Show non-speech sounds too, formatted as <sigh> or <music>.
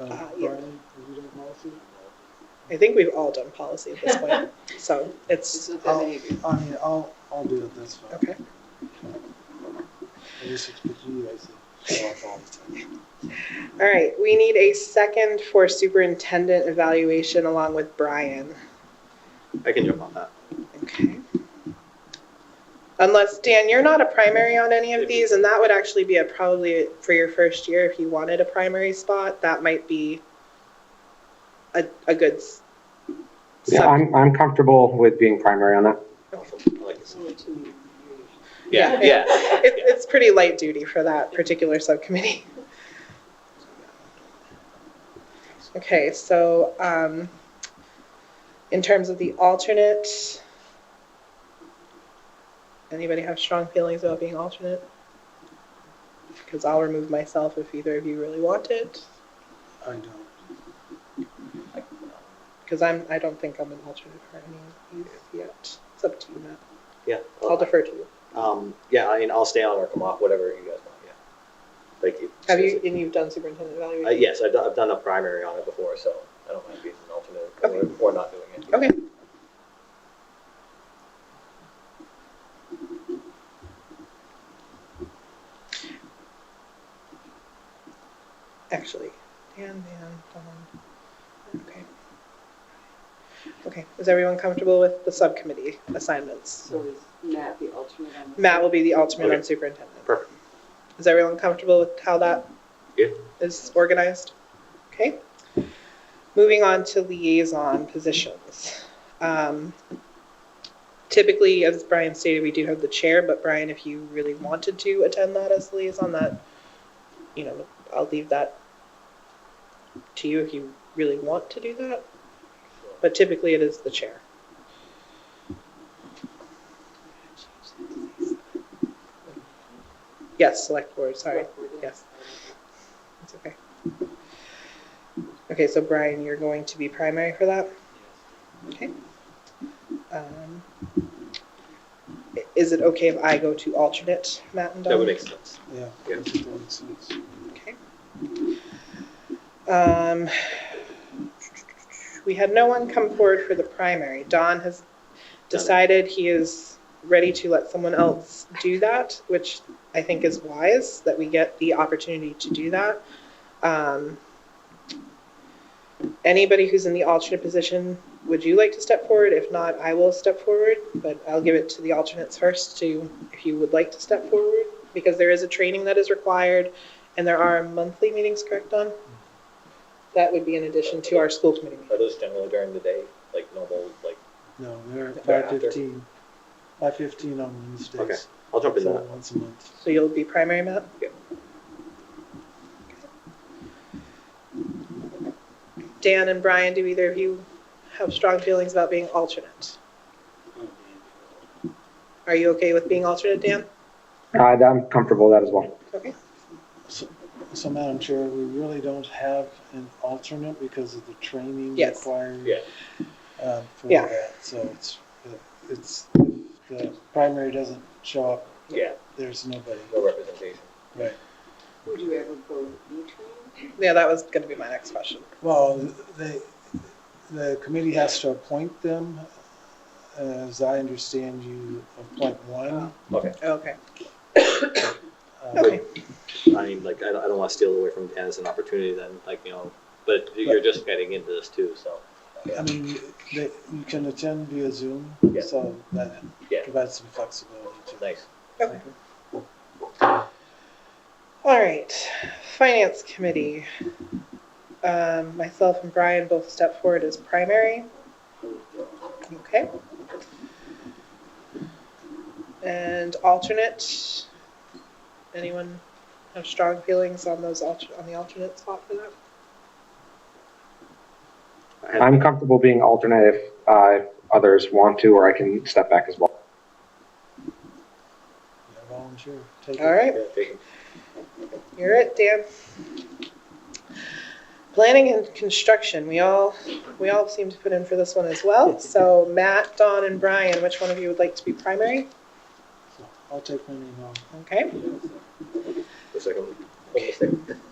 Um, Uh, yeah. Brian, have you done policy? I think we've all done policy at this point, so it's, It's not that many of you. I mean, I'll, I'll do it, that's fine. okay. I just expect you guys to show up all the time. All right, we need a second for superintendent evaluation along with Brian. I can jump on that. Okay. Unless, Dan, you're not a primary on any of these, and that would actually be a probably for your first year, if you wanted a primary spot, that might be a, a good. s- Yeah, sub- I'm, I'm comfortable with being primary on that. I like this. It's only two years. Yeah, Yeah. yeah. <laughs> It, it's pretty light duty for that particular subcommittee. <laughs> Okay, so, um, in terms of the alternate, anybody have strong feelings about being alternate? Because I'll remove myself if either of you really want it, I don't. because I'm, I don't think I'm an alternate for any of these yet. It's up to you, Matt. Yeah. I'll defer to you. Um, yeah, I mean, I'll stay on or come off, whatever you guys want, yeah. Thank you. Have you, and you've done superintendent evaluation? Uh, yes, I've done, I've done a primary on it before, so I don't mind being an alternate or, or not doing it. Okay. Actually, Dan, Dan, Don. Okay. Okay, is everyone comfortable with the subcommittee assignments? So is Matt the alternate on the? Matt will be the alternate on Okay. superintendent. Perfect. Is everyone comfortable with how that Yeah. is organized? Okay. Moving on to liaison positions. Um, Typically, as Brian stated, we do have the chair, but Brian, if you really wanted to attend that as liaison, that, you know, I'll leave that to you if you really want to do that. But typically, it is the chair. Yes, select board, sorry. Yes. It's okay. Okay, so Brian, you're going to be primary for that? Okay. Um, i- Is it okay if I go to alternate, Matt and Don? That would make sense. Yeah. Yeah. That makes sense. Okay. Um, we had no one come forward for the primary. Don has decided he is ready to let someone else do that, which I think is wise that we get the opportunity to do that. Um, anybody who's in the alternate position, would you like to step forward? If not, I will step forward, but I'll give it to the alternates first to if you would like to step forward because there is a training that is required. And there are monthly meetings, correct, Don? That would be in addition to our school committee meeting. Are those generally during the day, like normal, like, No, they're They're five after. fifteen, five fifteen on Okay, Wednesdays, I'll jump in so that. once a month. So you'll be primary, Matt? Yep. Dan and Brian, do either of you have strong feelings about being alternate? Are you okay with being alternate, Dan? Uh, I'm comfortable with that as well. Okay. So, so Madam Chair, we really don't have an alternate because of the training Yes. required. Yeah. um, for Yeah. that, so it's, it's, the primary doesn't show up, Yeah, there's nobody, no representation. right? Would you ever go E-Train? Yeah, that was gonna be my next question. Well, they, the committee has to appoint them, as I understand you appoint one. Okay, Okay, um, okay, I mean, like, I don't, I don't wanna steal away from Dennis an opportunity then, like, you know, but you're just getting into this too, so. I mean, they, you can attend via Zoom, Yeah. so that Yeah. provides some flexibility to Nice. okay. All right, Finance Committee. Um, myself and Brian both step forward as primary. Okay. And alternate, anyone have strong feelings on those alter, on the alternate spot for that? I have- I'm comfortable being alternate if uh, others want to, or I can step back as well. Yeah, volunteer, take it. All right, Yeah, take it. you're it, Dan. Planning and construction, we all, we all seem to put in for this one as well. So Matt, Don, and Brian, which one of you would like to be primary? So I'll take my name off. Okay, The second one. Almost there.